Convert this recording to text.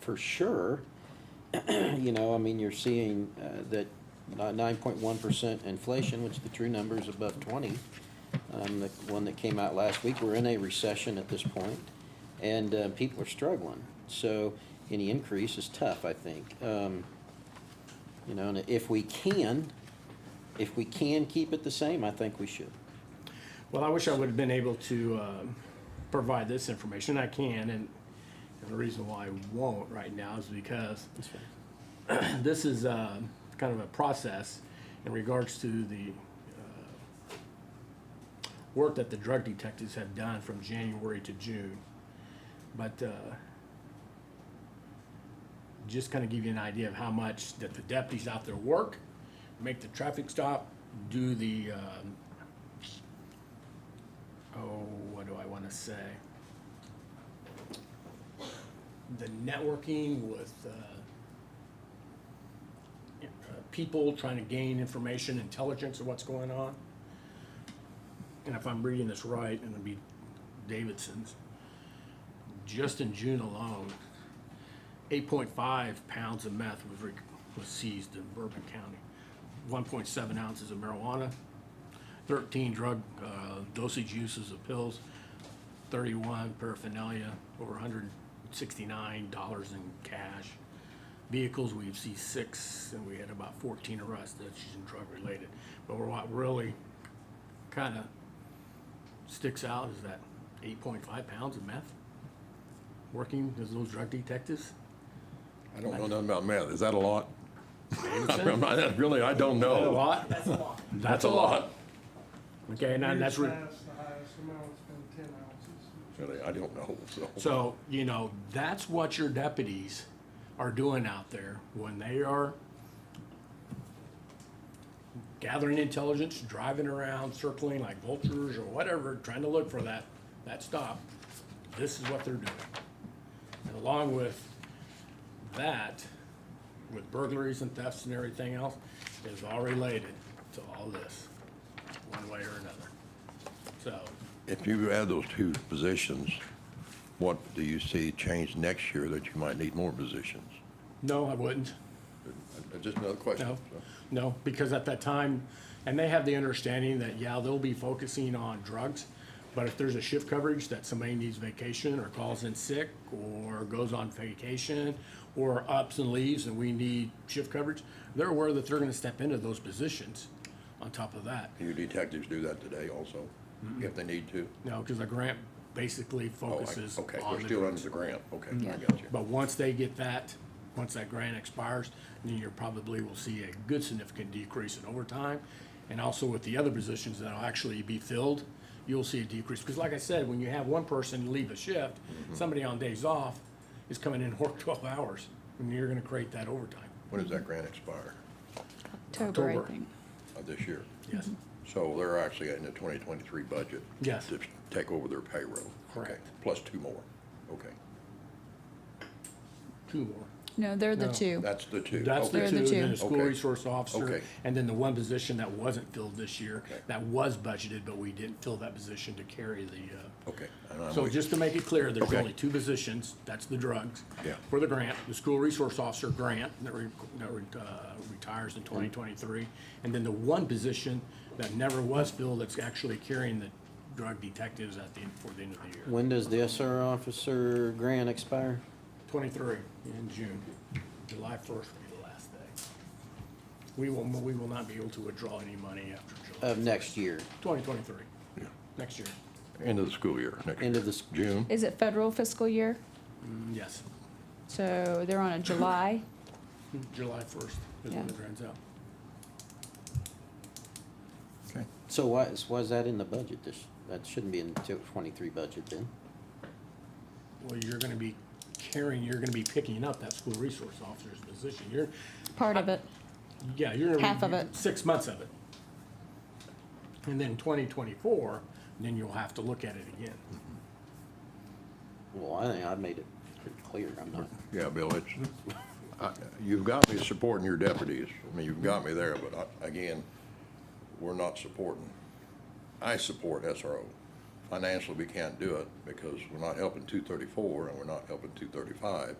for sure. You know, I mean, you're seeing uh, that nine point one percent inflation, which the true number is above twenty. Um, The one that came out last week, we're in a recession at this point, and uh, people are struggling. So any increase is tough, I think. Um, You know, and if we can, if we can keep it the same, I think we should. Well, I wish I would have been able to um, provide this information. I can, and and the reason why I won't right now is because this is uh, kind of a process in regards to the uh, work that the drug detectives have done from January to June. But uh, just kind of give you an idea of how much that the deputies out there work, make the traffic stop, do the, um, oh, what do I want to say? The networking with uh, uh, people trying to gain information, intelligence of what's going on. And if I'm reading this right, and it'd be Davidson's, just in June alone, eight point five pounds of meth was, rec- was seized in Bourbon County. One point seven ounces of marijuana, thirteen drug, uh, dosage uses of pills, thirty-one paraphernalia, over hundred and sixty-nine dollars in cash vehicles, we see six, and we had about fourteen arrests that's using drug-related. But what really kind of sticks out is that eight point five pounds of meth working as those drug detectives. I don't know nothing about meth. Is that a lot? I'm Davidson? not- I- Really, I don't A know. lot? That's a lot. That's a lot. Okay, and then that's, Years re- past, the highest amount's been ten ounces. Really, I don't know, so. so, you know, that's what your deputies are doing out there when they are gathering intelligence, driving around, circling like vultures or whatever, trying to look for that, that stop. This is what they're doing. And along with that, with burglaries and thefts and everything else, is all related to all this, one way or another. So, If you add those two positions, what do you see change next year that you might need more positions? no, I wouldn't. Uh, Just another question. No, so. no, because at that time, and they have the understanding that, yeah, they'll be focusing on drugs, but if there's a shift coverage that somebody needs vacation or calls in sick or goes on vacation or ups and leaves and we need shift coverage, they're aware that they're gonna step into those positions on top of that. Do your detectives do that today also, Mm-hmm. if they need to? No, because the grant basically Oh, I- focuses Okay, on they're the still drugs. under the grant. Okay, I got you. But once they get that, once that grant expires, then you probably will see a good significant decrease in overtime. And also with the other positions that'll actually be filled, you'll see a decrease. Because like I said, when you have one person leave a shift, Mm-hmm. somebody on days off is coming in and work twelve hours, and you're gonna create that overtime. When does that grant expire October, I October. think. of this year? Yes, So they're actually in the 2023 budget? Yes. To take over their payroll? Okay, Correct. Plus two more, okay. two more. No, they're the No. two. That's the two. That's the Okay. They're two, the and two. then the school Okay. resource officer, Okay. and then the one position that wasn't filled this year, Okay. that was budgeted, but we didn't fill that position to carry the, uh, Okay. and I'm So with- just to make it clear, there's Okay. only two positions, that's the drugs. Yeah. For the grant, the school resource officer grant that re, that re, uh, retires in twenty twenty-three. And then the one position that never was filled, that's actually carrying the drug detectives at the, end- for the end of the year. When does the SR officer grant expire? Twenty-three in June, July first will be the last day. We will, we will not be able to withdraw any money after Of July, next year, twenty twenty-three, Um, Yeah. next year, End of the school year, next end year. of the, s- June? Is it federal fiscal year? Mm, yes, So they're on a July. July first is when Yeah. the grant's out. Okay. so why is, why is that in the budget this, that shouldn't be in the two- twenty-three budget then? Well, you're gonna be carrying, you're gonna be picking up that school resource officer's position. You're, Part of it. yeah, you're. Half of it. Six months of it. And then twenty twenty-four, then you'll have to look at it again. Well, I think I made it pretty clear, I'm not, Yeah, Bill, it's, I- you've got me supporting your deputies. I mean, you've got me there, but I- again, we're not supporting. I support SRO. Financially, we can't do it because we're not helping 234 and we're not helping 235.